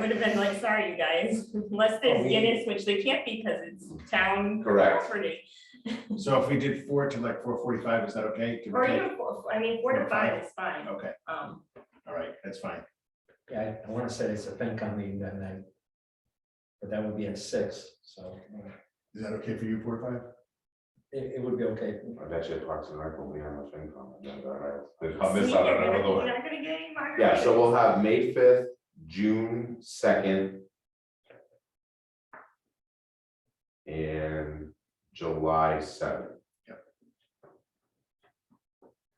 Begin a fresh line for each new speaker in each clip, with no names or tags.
would have been like, sorry, you guys, unless
Oh,
there's
we-
Guinness, which they can't be because it's town
Correct.
property.
So if we did four to like four forty-five, is that okay? Give
Mm-hmm. Or
or take?
even, four- I mean, four to five is fine.
Okay,
Um,
all right, that's fine.
Yeah, I want to say it's a FinCom meeting that night. But that would be at six, so uh,
Is that okay for you, four to five?
it, it would be okay.
I've actually talked to Mark, we'll be on the same comment, that's all right. They'd
so
help us
you're
out
gonna-
on another
you're
one.
not gonna get any margaritas.
Yeah, so we'll have May fifth, June second. And July seventh.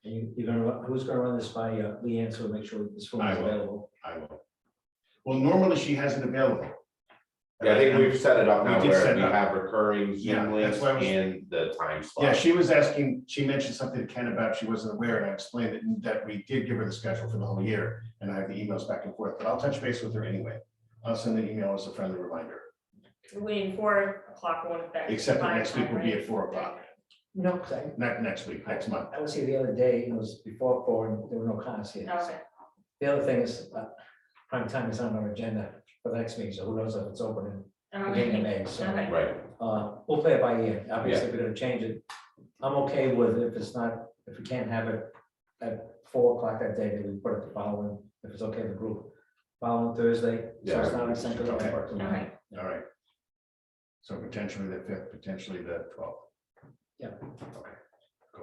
And you, you're gonna, run- who's gonna run this by uh, Leanne, so make sure this one
I
is
will.
available?
I will. Well, normally she has it available.
Yeah, I think we've set it up
We
now
did
where
set it
we
up.
have recurring
Yeah,
Zoom
that's
links
why I was-
and the time slot.
Yeah, she was asking, she mentioned something to Ken about she wasn't aware, and I explained that, that we did give her the schedule for the whole year, and I have the emails back and forth, but I'll touch base with her anyway. I'll send an email as a friendly reminder,
Waiting four o'clock won't affect.
except that
my
next week
time,
will be
right?
at four o'clock,
No, 'cause I,
not next week, next month.
I was here the other day, and it was before four, and there were no comments here. so.
Okay,
The other thing is, uh, prime time is on our agenda for the next meeting, so who knows if it's open in beginning of
okay,
May, so,
okay.
Right,
uh, we'll play it by ear, obviously, if we're gonna change it. I'm okay with if it's not, if we can't have it at four o'clock that day, then we put it the following, if it's okay with the group. Following Thursday, so it's
Yeah.
not essential.
Okay.
Okay.
All right. So potentially the fifth, potentially the twelfth.
Yeah.
Okay.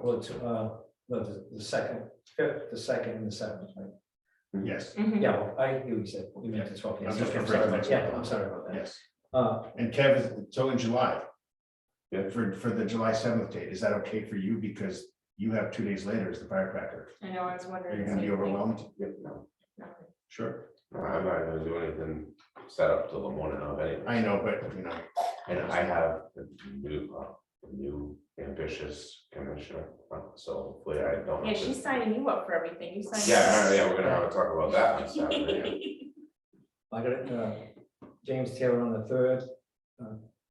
Well,
Cool.
it's, uh, no, the, the second, fifth, the second and the seventh, right?
Yes,
Mhm.
Yeah, well, I, hear what you said, you meant the twelfth.
I'm just
I'm
referring
sorry
to
about,
next
yeah,
month.
I'm sorry about that.
yes.
Uh,
And Kev, is so in July.
Yeah.
For, for the July seventh date, is that okay for you? Because you have two days later is the firecracker.
I know, I was
Are
wondering.
you
the
gonna be
same thing.
overwhelmed?
yeah, no,
Nothing.
Sure.
I'm not gonna do anything set up till the morning of anyway.
I know, but you know,
And I have a new, uh, new ambitious commissioner, uh, so hopefully I don't.
Yeah,
have to-
she's signing you up for everything, you signed.
Yeah, yeah, we're gonna have to talk about that on Saturday.
I got it, uh, James Taylor on the third, uh,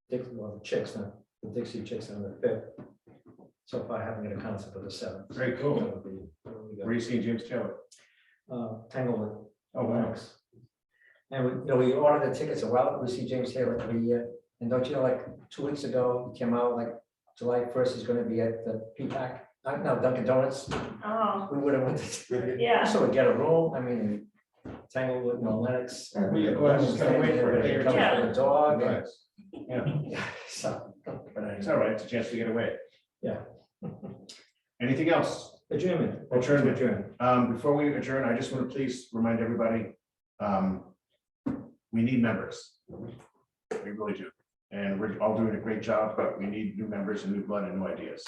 Dick, well, the Chicks, now, the Dixie Chicks on the fifth. So far, I haven't got a concept of the seventh.
very
That
cool.
would be- that would be
Where are
good.
you seeing James Taylor?
Uh, Tanglewood.
Oh, wow.
Thanks. And we, you know, we ordered the tickets a while, we see James Taylor every year, and don't you know, like, two weeks ago, he came out, like, July first, he's gonna be at the Peacock, uh, no, Dunkin' Donuts,
Oh,
we would have went to.
yeah.
So we get a room, I mean, Tanglewood, no Lennox.
Yeah, we- well, I was just gonna wait for it.
Everybody comes with a dog, and-
Nice. Yeah,
Yeah, so, but
it's
I,
all right. It's a chance to get away.
Yeah.
Anything else?
adjournment.
Adjournment.
Adjourn.
Um, before we adjourn, I just want to please remind everybody, um, we need members. We really do. And we're all doing a great job, but we need new members and new blood and new ideas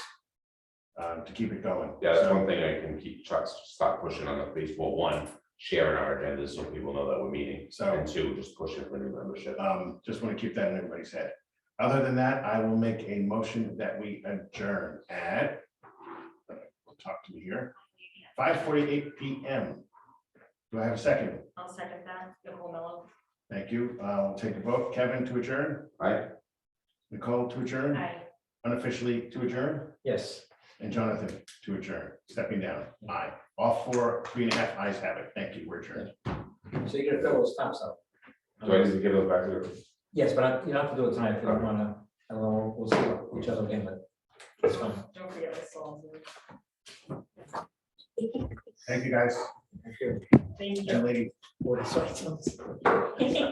um, to keep it going.
Yeah, that's one
So,
thing I can keep, Chuck, stop pushing on the Facebook, one, sharing our agendas so people know that we're meeting.
so,
And two, just pushing for new membership.
um, just want to keep that in everybody's head. Other than that, I will make a motion that we adjourn at talk to me here, five forty-eight PM. Do I have a second?
I'll second that, the whole mellow.
Thank you. I'll take a vote. Kevin to adjourn,
Right?
Nicole to adjourn.
Aye.
unofficially to adjourn,
Yes.
and Jonathan to adjourn, stepping down. Aye. All four, three and a half ayes have it. Thank you. We're adjourned.
So you're gonna fill those tops up.
Do I need to give those back to the?
Yes, but I- you don't have to do it tonight if you don't wanna, I don't know, we'll see what each other again, but it's fine.
Don't forget the songs.
Thank you, guys.
Thank you.
Thank
And lady.
Board of Selectmen.
you.